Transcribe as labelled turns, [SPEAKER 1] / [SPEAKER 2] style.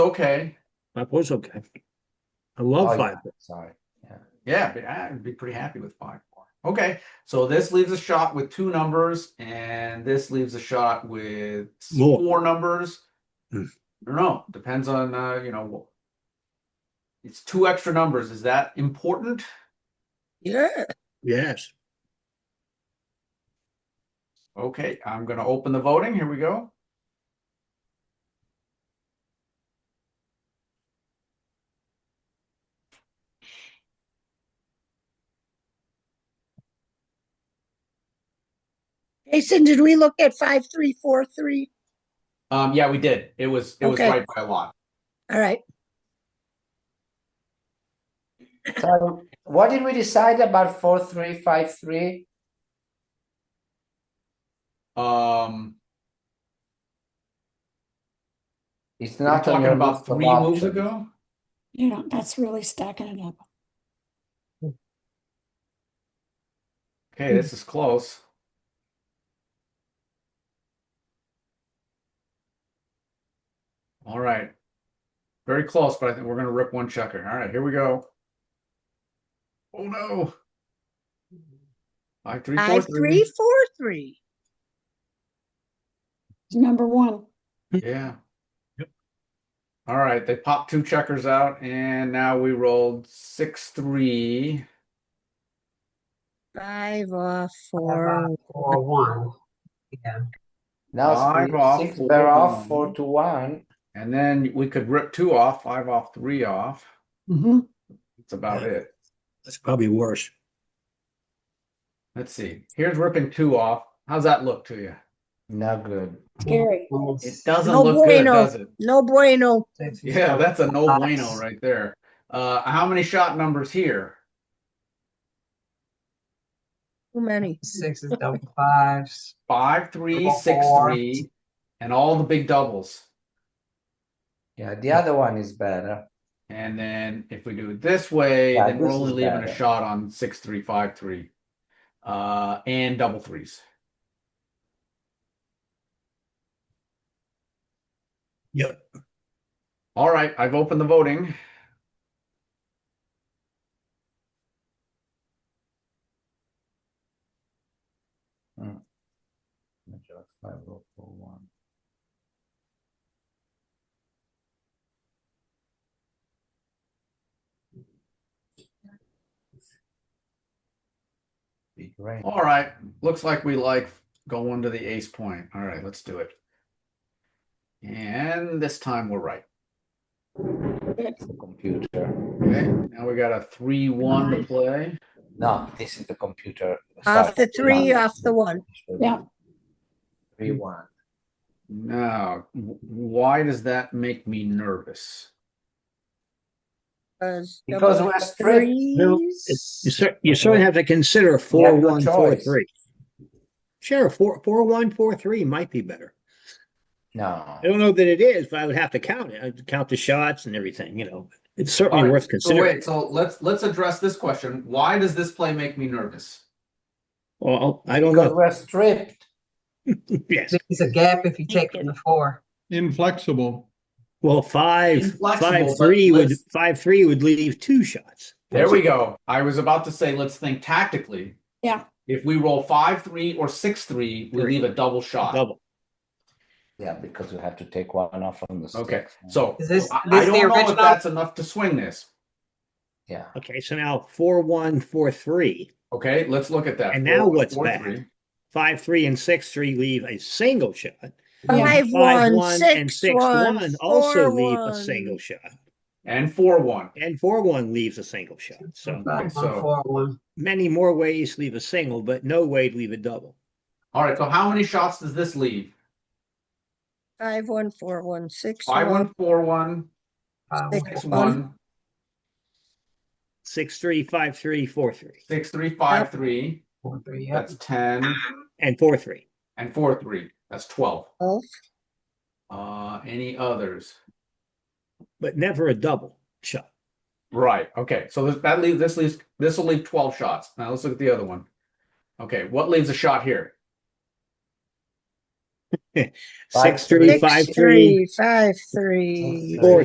[SPEAKER 1] okay.
[SPEAKER 2] Five was okay. I love
[SPEAKER 1] Oh,
[SPEAKER 2] five.
[SPEAKER 1] Sorry. Yeah. Yeah. But I'd be pretty happy with five more. Okay. So this leaves a shot with two numbers, and this leaves a shot with s-
[SPEAKER 2] More.
[SPEAKER 1] four numbers.
[SPEAKER 2] Mm.
[SPEAKER 1] I don't know. Depends on, uh, you know, wha- it's two extra numbers. Is that important?
[SPEAKER 3] Yeah.
[SPEAKER 2] Yes.
[SPEAKER 1] Okay. I'm going to open the voting. Here we go.
[SPEAKER 3] Jason, did we look at five, three, four, three?
[SPEAKER 1] Um, yeah, we did. It was, it was
[SPEAKER 3] Okay.
[SPEAKER 1] right by a lot.
[SPEAKER 3] All right.
[SPEAKER 4] So what did we decide about four three five three?
[SPEAKER 1] Um,
[SPEAKER 4] It's
[SPEAKER 1] we were
[SPEAKER 4] not on
[SPEAKER 1] talking
[SPEAKER 4] your
[SPEAKER 1] about
[SPEAKER 4] list of
[SPEAKER 1] three moves
[SPEAKER 4] options.
[SPEAKER 1] ago.
[SPEAKER 5] You know, that's really stacking it up.
[SPEAKER 1] Okay. This is close. All right. Very close, but I think we're going to rip one checker. All right, here we go. Oh no. Five, three, four,
[SPEAKER 3] Five, three,
[SPEAKER 1] three.
[SPEAKER 3] four, three.
[SPEAKER 5] Number one,
[SPEAKER 1] Yeah. All right, they popped two checkers out, and now we rolled six, three.
[SPEAKER 3] Five off, four.
[SPEAKER 6] Or one. Yeah.
[SPEAKER 4] Now
[SPEAKER 1] Five
[SPEAKER 4] three-
[SPEAKER 1] off,
[SPEAKER 4] six
[SPEAKER 1] four
[SPEAKER 4] were
[SPEAKER 1] to
[SPEAKER 4] off, four
[SPEAKER 1] one.
[SPEAKER 4] to one.
[SPEAKER 1] And then we could rip two off, five off, three off.
[SPEAKER 5] Mhm.
[SPEAKER 1] That's about
[SPEAKER 2] Yeah.
[SPEAKER 1] it.
[SPEAKER 2] That's probably worse.
[SPEAKER 1] Let's see. Here's ripping two off. How's that look to you?
[SPEAKER 4] Not good.
[SPEAKER 5] scary.
[SPEAKER 1] It doesn't
[SPEAKER 3] No
[SPEAKER 1] look good,
[SPEAKER 3] bueno.
[SPEAKER 1] does it?
[SPEAKER 3] No bueno.
[SPEAKER 1] Yeah, that's a no
[SPEAKER 6] Nice.
[SPEAKER 1] bueno right there. Uh, how many shot numbers here?
[SPEAKER 3] Too many.
[SPEAKER 6] Sixes, double fives.
[SPEAKER 1] Five, three,
[SPEAKER 6] Double
[SPEAKER 1] six,
[SPEAKER 6] fours.
[SPEAKER 1] three, and all the big doubles.
[SPEAKER 4] Yeah, the other one is better.
[SPEAKER 1] And then if we do it this way,
[SPEAKER 4] Yeah,
[SPEAKER 1] then we're
[SPEAKER 4] this
[SPEAKER 1] only
[SPEAKER 4] is
[SPEAKER 1] leaving a
[SPEAKER 4] better.
[SPEAKER 1] shot on six, three, five, three, uh, and double threes.
[SPEAKER 2] Yep.
[SPEAKER 1] All right, I've opened the voting.
[SPEAKER 4] Five oh four one. Big range.
[SPEAKER 1] All right, looks like we like going to the ace point. All right, let's do it. And this time we're right.
[SPEAKER 4] Computer.
[SPEAKER 1] Okay, now we got a three, one to play.
[SPEAKER 4] No, this is the computer.
[SPEAKER 3] Off the
[SPEAKER 4] Sorry,
[SPEAKER 3] three,
[SPEAKER 4] not-
[SPEAKER 3] off the one.
[SPEAKER 5] Yeah.
[SPEAKER 4] Three one.
[SPEAKER 1] Now, w- why does that make me nervous?
[SPEAKER 3] 'cause double
[SPEAKER 4] Because we're stripped.
[SPEAKER 2] No, You
[SPEAKER 3] threes.
[SPEAKER 2] cer- you certainly have to consider four,
[SPEAKER 4] no
[SPEAKER 2] one, four,
[SPEAKER 4] choice.
[SPEAKER 2] three. Sure, four, four, one, four, three might be better.
[SPEAKER 4] No.
[SPEAKER 2] I don't know that it is, but I would have to count it. I'd count the shots and everything, you know. It's certainly
[SPEAKER 1] Alright,
[SPEAKER 2] worth
[SPEAKER 1] So
[SPEAKER 2] considering.
[SPEAKER 1] wait, so let's let's address this question. Why does this play make me nervous?
[SPEAKER 2] Well, I don't
[SPEAKER 4] Because
[SPEAKER 2] know.
[SPEAKER 4] we're stripped.
[SPEAKER 2] Yes.
[SPEAKER 6] There's a gap if you take from the four.
[SPEAKER 7] Inflexible.
[SPEAKER 2] Well, five,
[SPEAKER 1] Inflexible,
[SPEAKER 2] five,
[SPEAKER 1] but
[SPEAKER 2] three would,
[SPEAKER 1] let's-
[SPEAKER 2] five, three would leave two shots.
[SPEAKER 1] There we go. I was about to say let's think tactically.
[SPEAKER 5] Yeah.
[SPEAKER 1] If we roll five three or six three, we
[SPEAKER 2] Three.
[SPEAKER 1] leave a double shot.
[SPEAKER 2] Double.
[SPEAKER 4] Yeah, because we have to take one off from the stick.
[SPEAKER 1] Okay, so
[SPEAKER 6] Is this-
[SPEAKER 1] I, I
[SPEAKER 6] this the
[SPEAKER 1] don't know if
[SPEAKER 6] original?
[SPEAKER 1] that's enough to swing this.
[SPEAKER 4] Yeah.
[SPEAKER 2] Okay, so now four, one, four, three.
[SPEAKER 1] Okay, let's look at that.
[SPEAKER 2] And
[SPEAKER 1] Four,
[SPEAKER 2] now
[SPEAKER 1] one,
[SPEAKER 2] what's
[SPEAKER 1] four,
[SPEAKER 2] bad?
[SPEAKER 1] three.
[SPEAKER 2] Five, three, and six, three leave a single shot.
[SPEAKER 5] Yeah.
[SPEAKER 3] Five,
[SPEAKER 2] Five,
[SPEAKER 3] one,
[SPEAKER 2] one, and
[SPEAKER 3] six,
[SPEAKER 2] six,
[SPEAKER 3] one,
[SPEAKER 2] one also
[SPEAKER 3] four,
[SPEAKER 2] leave a
[SPEAKER 3] one.
[SPEAKER 2] single shot.
[SPEAKER 1] And four one.
[SPEAKER 2] And four, one leaves a single shot. So
[SPEAKER 6] Five,
[SPEAKER 1] so-
[SPEAKER 6] one, four, one.
[SPEAKER 2] many more ways leave a single, but no way to leave a double.
[SPEAKER 1] All right, so how many shots does this leave?
[SPEAKER 3] Five, one, four, one, six,
[SPEAKER 1] Five
[SPEAKER 3] one,
[SPEAKER 1] one four one
[SPEAKER 6] Five,
[SPEAKER 3] Six.
[SPEAKER 1] six
[SPEAKER 3] One.
[SPEAKER 1] one
[SPEAKER 2] Six, three, five, three, four, three,
[SPEAKER 1] six three five three.
[SPEAKER 6] four, three, yep.
[SPEAKER 1] That's ten
[SPEAKER 2] and four, three.
[SPEAKER 1] and four three. That's twelve.
[SPEAKER 3] twelve.
[SPEAKER 1] Uh, any others?
[SPEAKER 2] but never a double shot.
[SPEAKER 1] Right. Okay. So this, that leaves this leaves this will leave twelve shots. Now let's look at the other one. Okay, what leaves a shot here?
[SPEAKER 4] Five,
[SPEAKER 2] Six, three,
[SPEAKER 3] Six,
[SPEAKER 2] five, three,
[SPEAKER 3] three, five, three.
[SPEAKER 2] four,